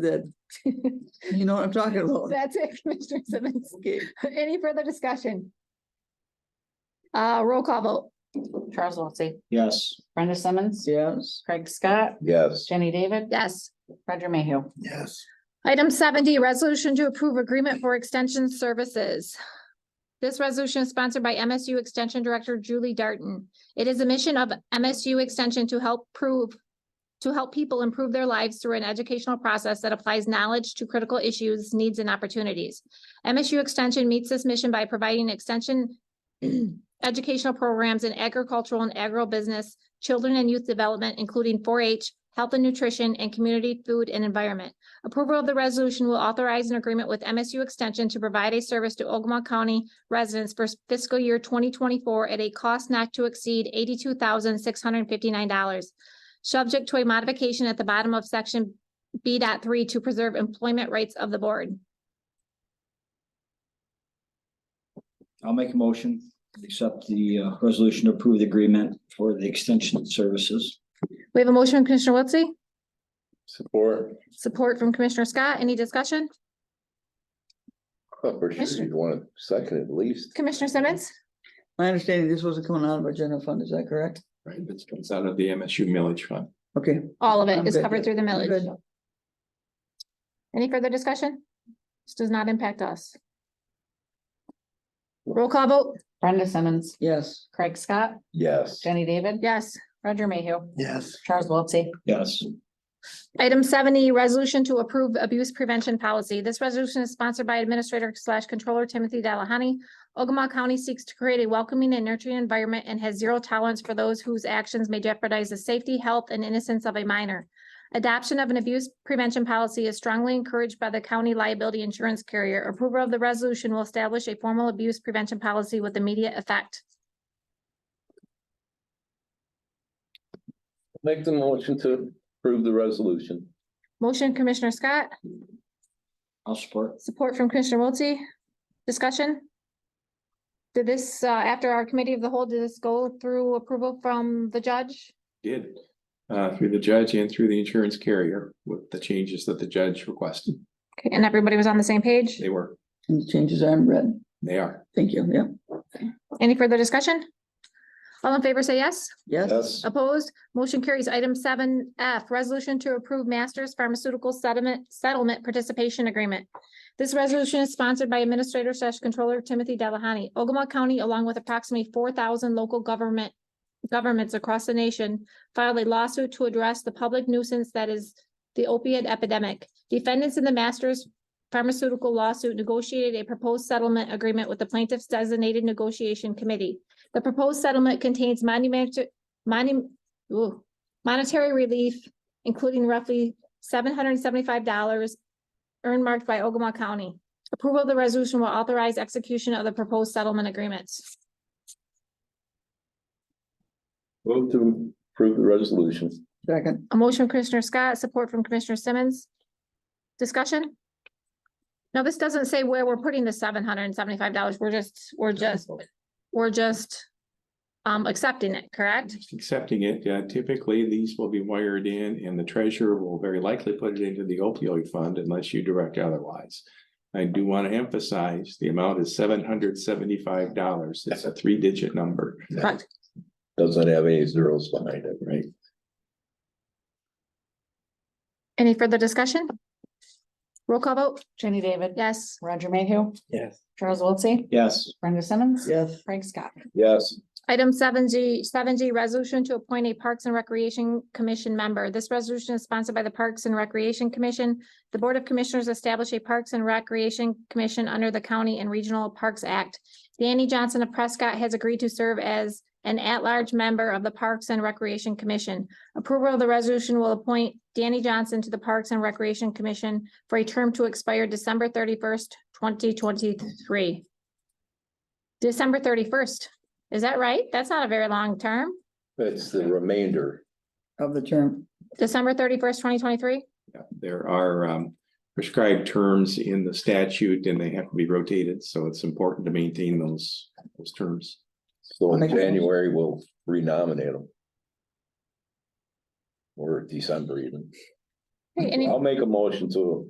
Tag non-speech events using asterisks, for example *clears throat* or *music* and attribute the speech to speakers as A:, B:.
A: that, *laughs* you know what I'm talking about.
B: *laughs* That's it, Commissioner Simmons.
A: Okay,
B: Any further discussion? Uh, roll call vote.
C: Charles Wiltie,
D: Yes.
C: Brenda Simmons,
A: yes,
C: Craig Scott,
D: Yes.
C: Jenny David,
B: Yes.
C: Roger Mayhew.
D: Yes.
B: Item seventy, resolution to approve agreement for extension services. This resolution is sponsored by MSU Extension Director Julie Darton. It is a mission of MSU Extension to help prove, to help people improve their lives through an educational process that applies knowledge to critical issues, needs, and opportunities. MSU Extension meets this mission by providing extension *clears throat* educational programs in agricultural and agribusiness, children and youth development, including four H, health and nutrition, and community food and environment. Approval of the resolution will authorize an agreement with MSU Extension to provide a service to Ogama County residents for fiscal year twenty twenty-four at a cost not to exceed eighty-two thousand six hundred and fifty-nine dollars. Subject to a modification at the bottom of section B dot three to preserve employment rights of the board.
D: I'll make a motion, to accept the uh, resolution to approve the agreement for the extension services.
B: We have a motion from Commissioner Wiltse,
E: Support.
B: support from Commissioner Scott. Any discussion?
E: Oh, For sure, you'd want to second at least.
B: Commissioner Simmons?
A: my understanding this wasn't coming out of our general fund, is that correct?
E: Right, this comes out of the MSU millage fund.
A: Okay,
B: All of it
A: I'm
B: is
A: good.
B: covered through the millage.
A: Good.
B: Any further discussion? This does not impact us. Roll call vote?
C: Brenda Simmons,
A: yes,
C: Craig Scott,
E: Yes.
C: Jenny David,
B: Yes.
C: Roger Mayhew,
E: Yes.
C: Charles Wiltie,
D: Yes.
B: Item seventy, resolution to approve abuse prevention policy. This resolution is sponsored by Administrator slash Controller Timothy Delahoney. Ogama County seeks to create a welcoming and nurturing environment and has zero tolerance for those whose actions may jeopardize the safety, health, and innocence of a minor. Adoption of an abuse prevention policy is strongly encouraged by the county liability insurance carrier. Approval of the resolution will establish a formal abuse prevention policy with immediate effect.
E: Make the motion to approve the resolution.
B: Motion Commissioner Scott,
D: I'll support.
B: Support from Commissioner Wiltie. Discussion? Did this, uh, after our committee of the whole, did this go through approval from the judge?
F: did uh through the judge and through the insurance carrier with the changes that the judge requested.
B: Okay, And everybody was on the same page?
F: They were,
A: and the changes are in red,
F: they are.
A: thank you, yeah,
B: Any further discussion? All in favor, say yes.
A: yes,
E: Yes.
B: Opposed? Motion carries. Item seven F, resolution to approve Masters Pharmaceutical Settlement, Settlement Participation Agreement. This resolution is sponsored by Administrator slash Controller Timothy Delahoney. Ogama County, along with approximately four thousand local government governments across the nation, filed a lawsuit to address the public nuisance that is the opiate epidemic. Defendants in the Masters Pharmaceutical lawsuit negotiated a proposed settlement agreement with the plaintiff's designated negotiation committee. The proposed settlement contains monumental, Moni- ooh, monetary relief, including roughly seven hundred and seventy-five dollars earmarked by Ogama County. Approval of the resolution will authorize execution of the proposed settlement agreements.
E: Move to approve the resolution.
A: second,
B: A motion from Commissioner Scott, support from Commissioner Simmons. Discussion? Now, this doesn't say where we're putting the seven hundred and seventy-five dollars. We're just, we're just, we're just um, accepting it, correct?
F: Just Accepting it, Uh, typically these will be wired in and the treasurer will very likely put it into the opioid fund unless you direct otherwise. I do want to emphasize the amount is seven hundred seventy-five dollars. It's a three-digit number.
B: Correct.
E: Doesn't have any zeros behind it, right?
B: Any further discussion? Roll call vote?
C: Jenny David.
B: Yes.
C: Roger Mayhew,
D: Yes.
C: Charles Wiltie,
D: Yes.
C: Brenda Simmons,
A: yes,
C: Craig Scott.
E: Yes.
B: Item seven G, seven G, resolution to appoint a Parks and Recreation Commission member. This resolution is sponsored by the Parks and Recreation Commission. The Board of Commissioners establish a Parks and Recreation Commission under the County and Regional Parks Act. Danny Johnson of Prescott has agreed to serve as an at-large member of the Parks and Recreation Commission. Approval of the resolution will appoint Danny Johnson to the Parks and Recreation Commission for a term to expire December thirty-first, twenty twenty-three. December thirty-first. Is that right? That's not a very long term.
E: It's the remainder.
A: of the term,
B: December thirty-first, twenty twenty-three?
F: Yeah, There are um prescribed terms in the statute and they have to be rotated, so it's important to maintain those those terms.
E: So in
A: Make a motion.
E: January, we'll renominate them. Or December even.
B: Any,
E: I'll make a motion to